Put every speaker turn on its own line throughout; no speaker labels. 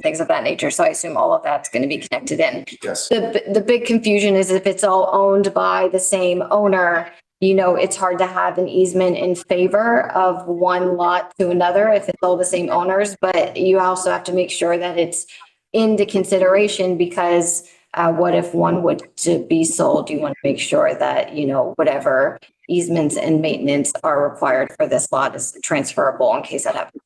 things of that nature. So I assume all of that's going to be connected in.
Yes.
The, the big confusion is if it's all owned by the same owner, you know, it's hard to have an easement in favor of one lot to another if it's all the same owners. But you also have to make sure that it's into consideration because uh, what if one would to be sold? You want to make sure that, you know, whatever easements and maintenance are required for this lot is transferable in case that happens.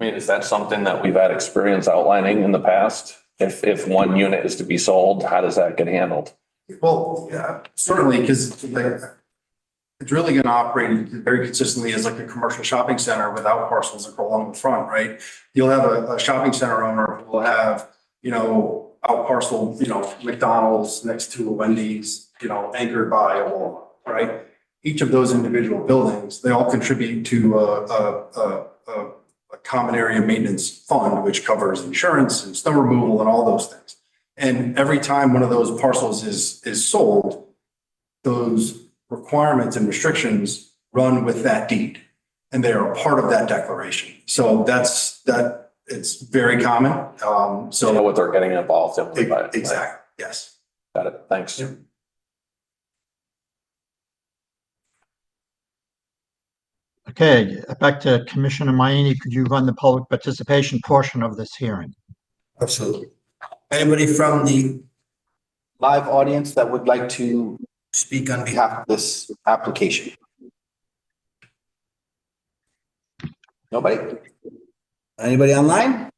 I mean, is that something that we've had experience outlining in the past? If, if one unit is to be sold, how does that get handled?
Well, yeah, certainly, because like, it's really gonna operate very consistently as like a commercial shopping center without parcels that go along the front, right? You'll have a, a shopping center owner who will have, you know, out parcel, you know, McDonald's next to a Wendy's, you know, anchored by a Walmart, right? Each of those individual buildings, they all contribute to a, a, a, a, a common area maintenance fund, which covers insurance and snow removal and all those things. And every time one of those parcels is, is sold, those requirements and restrictions run with that deed. And they are a part of that declaration. So that's, that, it's very common. Um,
Don't know
so.
what they're getting involved in. but-
Exactly, yes.
Got it. Thanks.
Yep.
Okay, back to Commissioner Maiani. Could you run the public participation portion of this hearing?
Absolutely. Anybody from the live audience that would like to speak on behalf of this application? Nobody? Anybody online?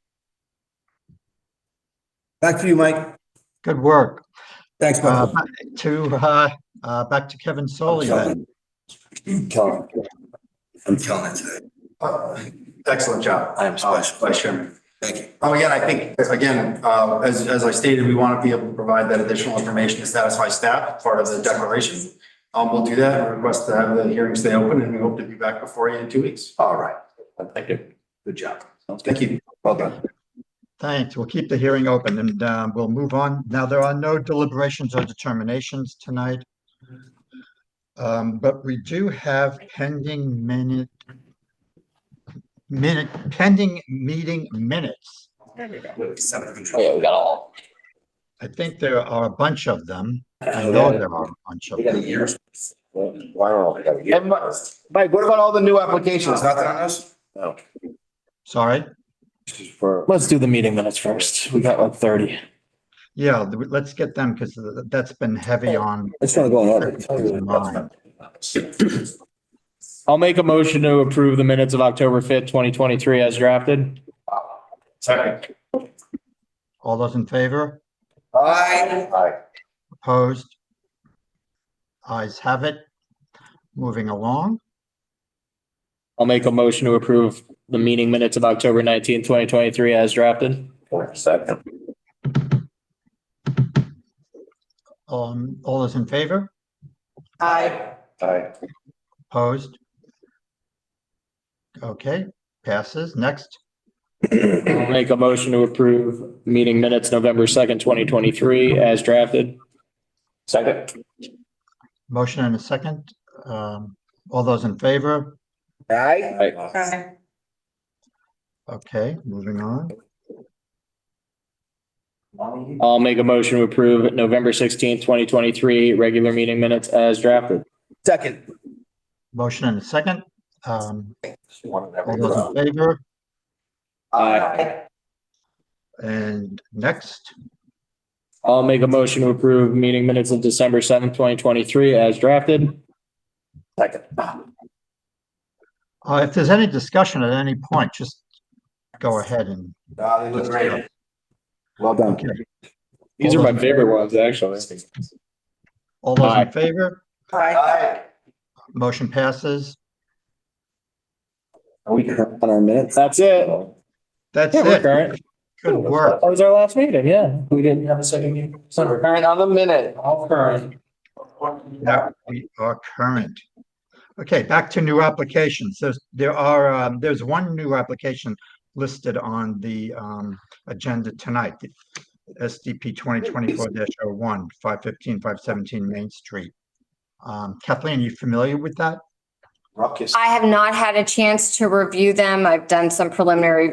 Back to you, Mike.
Good work.
Thanks,
Uh,
Mike.
back to, uh, uh, back to Kevin Solly then.
I'm killing it. I'm killing it today.
Uh, Excellent job.
I am special.
Uh, Vice Chairman.
Thank you.
Oh, again, I think, again, uh, as, as I stated, we want to be able to provide that additional information to satisfy staff, part of the declaration. Um, we'll do that, and request to have the hearing stay open, and we hope to be back before you in two weeks.
All right.
Thank you.
Good job. Sounds
Thank
good.
you.
Well done.
Thanks. We'll keep the hearing open and, uh, we'll move on. Now, there are no deliberations or determinations tonight. Um, but we do have pending minute, minute, pending meeting minutes.
Oh,
Oh,
yeah, we got all.
I think there are a bunch of them. I know there are a bunch of
Oh, We got a
them.
year.
Wow. we got a year.
And Mi- Mike, what about all the new applications? Nothing on us?
No.
Sorry?
Let's do the meeting minutes first. We got like thirty.
Yeah, th- let's get them because that's been heavy on.
It's not going
mine.
I'll make a motion to approve the minutes of October fifth, twenty twenty-three as drafted.
Second.
All those in favor?
Aye.
Opposed? Eyes have it. Moving along.
I'll make a motion to approve the meeting minutes of October nineteenth, twenty twenty-three as drafted.
Second.
Um, all those in favor?
Aye.
Aye.
Opposed? Okay, passes. Next,
I'll make a motion to approve meeting minutes November second, twenty twenty-three as drafted.
Second.
motion and a second. Um, all those in favor?
Aye.
Aye.
Okay, moving on.
I'll make a motion to approve November sixteenth, twenty twenty-three, regular meeting minutes as drafted.
Second.
Motion and a second. Um,
One in
all
every
those
row.
in favor?
Aye.
And next,
I'll make a motion to approve meeting minutes of December seventh, twenty twenty-three as drafted.
Second.
Ah,
uh, if there's any discussion at any point, just go ahead and
Ah, they look great. Well done.
Okay.
These are my favorite ones, actually.
All those
Aye.
in favor?
Aye.
Motion passes.
Are we current on our minutes?
That's it.
That's
Yeah, we're
it.
current.
Good work.
That was our last meeting, yeah. We didn't have a second meeting. So we're current on the minute, all current.
Now we are current. Okay, back to new applications. There's, there are, um, there's one new application listed on the, um, agenda tonight. SDP twenty twenty-four dash oh one, five fifteen, five seventeen Main Street. Um, Kathleen, you familiar with that?
ruckus.
I have not had a chance to review them. I've done some preliminary